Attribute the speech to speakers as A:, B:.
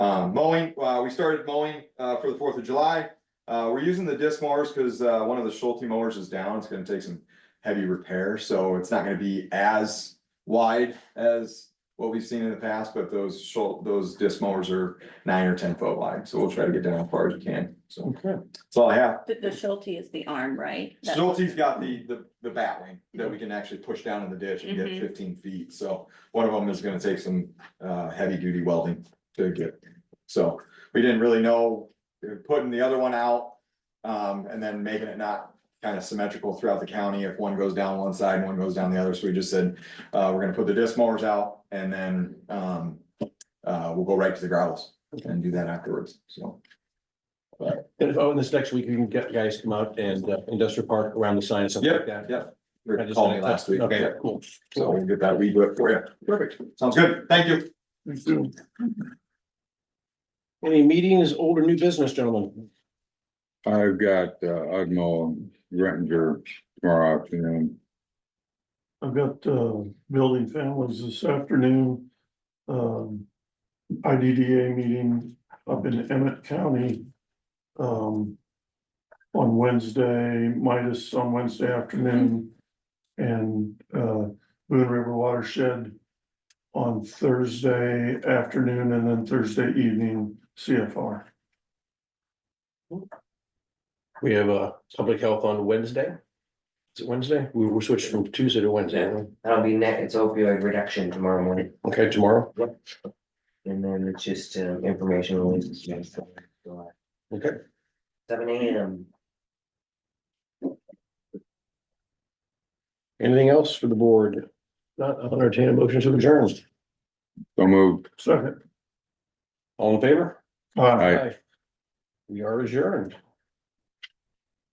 A: Um, mowing, uh, we started mowing, uh, for the Fourth of July. Uh, we're using the disc mowers because, uh, one of the Schulte mowers is down. It's gonna take some heavy repair, so it's not gonna be as wide as what we've seen in the past, but those Schulte, those disc mowers are nine or ten foot wide, so we'll try to get down as far as we can. So
B: Okay.
A: that's all I have.
C: The, the Schulte is the arm, right? That-
A: Schulte's got the, the, the bat wing that we can actually push down in the ditch and get
C: Mhm.
A: fifteen feet, so one of them is gonna take some, uh, heavy duty welding to get. So, we didn't really know, uh, putting the other one out, um, and then making it not kind of symmetrical throughout the county, if one goes down one side and one goes down the other, so we just said, uh, we're gonna put the disc mowers out and then, um, uh, we'll go right to the gravels and do that afterwards, so.
B: And if, oh, and this next week, you can get guys come out and uh, industrial park around the sign and stuff like that.
A: Yep. We
B: I
A: were
B: just
A: calling
B: wanted
A: it
B: to-
A: last week.
B: Okay,
A: yeah.
B: cool.
A: So we'll get that weed whip for you.
B: Perfect.
A: Sounds good. Thank you.
B: Any meetings, old or new business, gentlemen?
D: I've got, uh, Udmo Rettinger tomorrow afternoon.
E: I've got, uh, building families this afternoon. Um, IDDA meeting up in Emmett County. Um. On Wednesday, Midas on Wednesday afternoon. And, uh, Boone River Watershed. On Thursday afternoon and then Thursday evening, CFR.
B: We have a public health on Wednesday. Is it Wednesday? We were switched from Tuesday to Wednesday.
F: Yeah, that'll be net, it's opioid reduction tomorrow morning,
B: Okay, tomorrow.
F: and then it's just uh, information releases. yes.
B: Okay.
F: Seven AM.
B: Anything else for the board? Not, I'll entertain a motion to adjourn.
D: So moved.
E: Second.
B: All in favor?
E: Uh,
D: Aye.
B: We are adjourned.